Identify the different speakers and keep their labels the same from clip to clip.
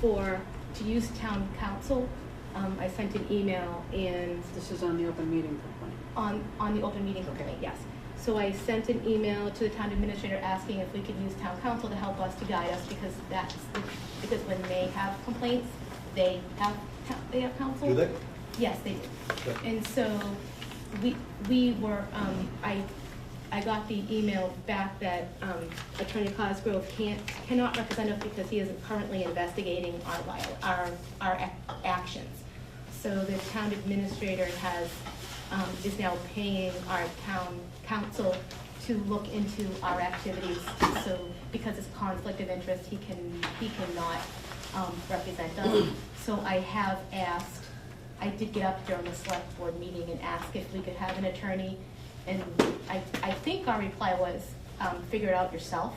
Speaker 1: for, to use town council. Um, I sent an email and
Speaker 2: This is on the open meeting complaint.
Speaker 1: on, on the open meeting
Speaker 2: Okay.
Speaker 1: complaint, yes. So I sent an email to the town administrator asking if we could use town council to help us, to guide us, because that's, because when they have complaints, they have, town- they have council.
Speaker 3: Do they?
Speaker 1: Yes, they do.
Speaker 3: Okay.
Speaker 1: And so we, we were, um, I, I got the email back that, um, Attorney Cosgrove can't, cannot represent us because he is currently investigating our viol, our, our ac- actions. So the town administrator has, um, is now paying our town council to look into our activities. So because it's conflict of interest, he can, he cannot, um, represent us. So I have asked I did get up during the select board meeting and ask if we could have an attorney, and I, I think our reply was, um, figure it out yourself.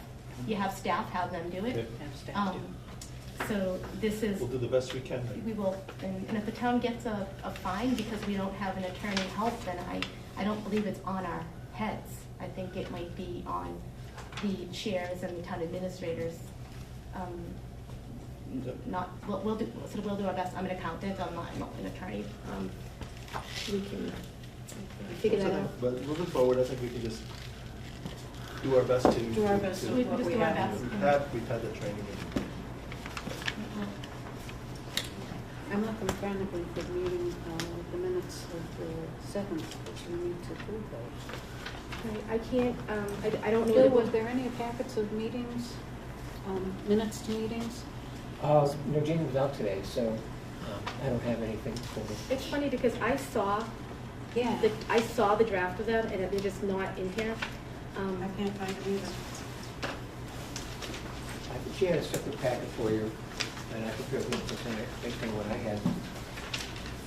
Speaker 1: You have staff, have them do
Speaker 3: Yeah.
Speaker 1: it.
Speaker 2: Have staff do
Speaker 1: Um, so this is,
Speaker 3: We'll do the best we can.
Speaker 1: we will, and, and if the town gets a, a fine because we don't have an attorney help, then I, I don't believe it's on our heads. I think it might be on the chairs and the town administrators, um,
Speaker 3: Yep.
Speaker 1: not, we'll, we'll do, so we'll do our best, I'm an accountant, I'm not, I'm not an attorney, um, we can figure that out.
Speaker 3: But moving forward, I think we can just do our best to.
Speaker 2: Do our best
Speaker 3: to-
Speaker 2: with
Speaker 1: We
Speaker 2: what
Speaker 1: just
Speaker 2: we
Speaker 1: do our
Speaker 2: have.
Speaker 1: best.
Speaker 3: We've had, we've had the training.
Speaker 2: I'm looking frantically for the meeting, uh, the minutes of the seventh, which we need to approve those.
Speaker 1: Right, I can't, um, I, I don't
Speaker 2: Bill,
Speaker 1: know,
Speaker 2: was
Speaker 1: what-
Speaker 2: there any packets of meetings, um, minutes to meetings?
Speaker 4: Uh, no, Jane was out today, so um, I don't have anything for you.
Speaker 1: it's funny because I saw,
Speaker 2: Yeah.
Speaker 1: the- I saw the draft of them and they're just not in here. Um,
Speaker 2: I can't find it either.
Speaker 4: I think she had a separate packet for you, and I think you have percent based on what I had.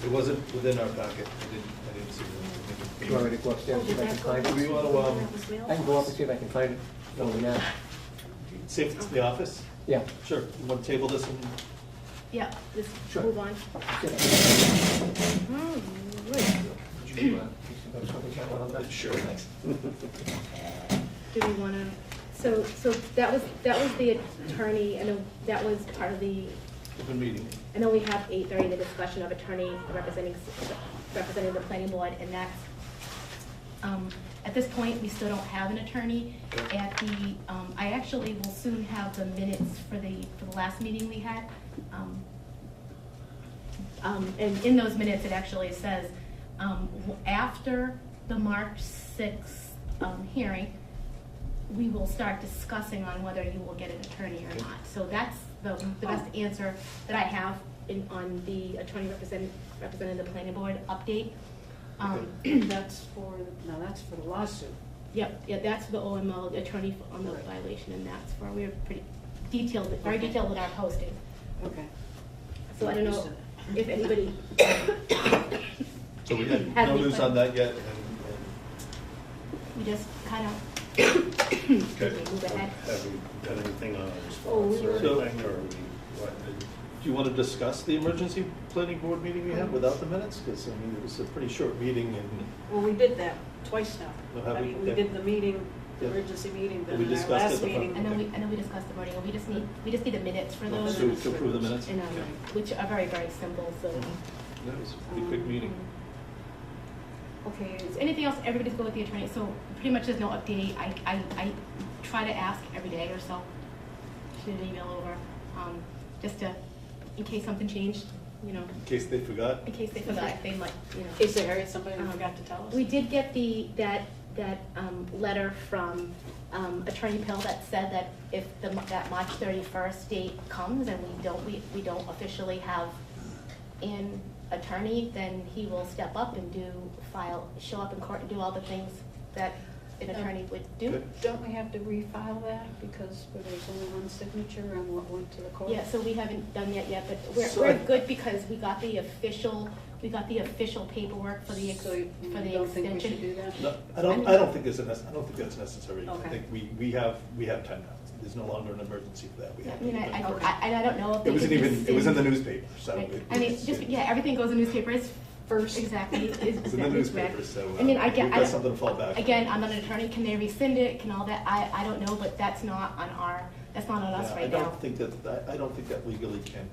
Speaker 3: It wasn't within our packet. I didn't, I didn't see
Speaker 4: Do
Speaker 3: it.
Speaker 4: you want me to go upstairs and see if I can find
Speaker 3: Do
Speaker 4: it?
Speaker 3: we want to, um,
Speaker 4: I can go up and see if I can find it. No, we're not.
Speaker 3: see if it's in the office?
Speaker 4: Yeah.
Speaker 3: Sure. You want to table this and
Speaker 1: yeah, just
Speaker 4: Sure.
Speaker 1: move on.
Speaker 4: Did
Speaker 1: Alright.
Speaker 4: you, uh, did you go something down on that?
Speaker 3: Sure, thanks.
Speaker 1: Do we wanna, so, so that was, that was the attorney, I know, that was part of the,
Speaker 3: Open meeting.
Speaker 1: I know we have eight during the discussion of attorney representing, representing the planning board, and that's, um, at this point, we still don't have an attorney.
Speaker 3: Okay.
Speaker 1: At the, um, I actually will soon have the minutes for the, for the last meeting we had. Um, um, and in those minutes, it actually says, um, w- after the March sixth, um, hearing, we will start discussing on whether you will get an attorney or not. So that's the, the best answer that I have in, on the attorney represent, representing the planning board update. Um,
Speaker 2: That's for, no, that's for the lawsuit.
Speaker 1: Yep, yeah, that's the OML attorney for- on the
Speaker 2: Right.
Speaker 1: violation, and that's where we were pretty detailed, very detailed in our posting.
Speaker 2: Okay.
Speaker 1: So I don't know if anybody,
Speaker 3: So we had
Speaker 1: Have
Speaker 3: no
Speaker 1: we
Speaker 3: news
Speaker 1: put-
Speaker 3: on that yet. and-
Speaker 1: we just kind of,
Speaker 5: Okay.
Speaker 1: move ahead.
Speaker 5: Have we done anything on a
Speaker 2: Oh, we
Speaker 5: response or
Speaker 3: were-
Speaker 5: anything, or we, what, did-
Speaker 3: Do you want to discuss the emergency planning board meeting we had without the minutes? Because, I mean, it was a pretty short meeting and
Speaker 2: Well, we did that twice
Speaker 3: No,
Speaker 2: now.
Speaker 3: have
Speaker 2: I
Speaker 3: we?
Speaker 2: mean, we
Speaker 3: Yeah.
Speaker 2: did the meeting, the
Speaker 3: Yeah.
Speaker 2: emergency meeting, but
Speaker 3: We
Speaker 2: in our
Speaker 3: discussed it
Speaker 2: last
Speaker 3: the-
Speaker 2: meeting.
Speaker 1: I know we, I know we discussed the wording, and we just need, we just need the minutes for those.
Speaker 3: to to approve the minutes.
Speaker 1: And, um,
Speaker 3: Okay.
Speaker 1: which are very, very simple, so.
Speaker 3: Mhm. That was a pretty quick meeting.
Speaker 2: Okay,
Speaker 1: Is anything else, everybody's good with the attorney, so pretty much there's no update, I, I, I try to ask every day or so, shoot an email over, um, just to, in case something changed, you know,
Speaker 3: In case they forgot.
Speaker 1: in case they forgot, they might, you know.
Speaker 2: is there somebody
Speaker 1: Um,
Speaker 2: who forgot to tell us?
Speaker 1: We did get the, that, that um, letter from um, Attorney Pill that said that if the, that March 31st date comes and we don't, we we don't officially have an attorney, then he will step up and do, file, show up in court and do all the things that an attorney would do.
Speaker 3: Good.
Speaker 2: Don't we have to refile that because there's only one signature on what went to the court?
Speaker 1: Yeah, so we haven't done that yet, but we're,
Speaker 3: So I-
Speaker 1: we're good because we got the official, we got the official paperwork for the, ex- for
Speaker 2: So
Speaker 1: the
Speaker 2: you
Speaker 1: extension.
Speaker 2: don't think we should do that?
Speaker 3: No, I don't, I don't think it's a, nec- I don't think that's necessary. I
Speaker 2: Okay.
Speaker 3: think we, we have, we have time now. There's no longer an emergency for that. We
Speaker 1: Yeah,
Speaker 3: have
Speaker 1: I mean, I,
Speaker 3: time.
Speaker 1: I don't, I, I don't know if.
Speaker 3: It
Speaker 1: they
Speaker 3: wasn't
Speaker 1: could
Speaker 3: even, it was in the
Speaker 1: rescind-
Speaker 3: newspaper, so.
Speaker 1: Right.
Speaker 3: it-
Speaker 1: I mean,
Speaker 3: it's-
Speaker 1: just, yeah, everything goes in newspapers.
Speaker 2: First.
Speaker 1: Exactly. is- is
Speaker 3: It's in the
Speaker 1: that
Speaker 3: newspaper,
Speaker 1: correct?
Speaker 3: so. uh,
Speaker 1: I mean, I
Speaker 3: We've
Speaker 1: get, I
Speaker 3: got something
Speaker 1: don't,
Speaker 3: to fall back on.
Speaker 1: again, I'm not an attorney, can they rescind it, can all that, I, I don't know, but that's not on our, that's not on us
Speaker 3: Yeah,
Speaker 1: right
Speaker 3: I
Speaker 1: now.
Speaker 3: don't think that, I, I don't think that legally can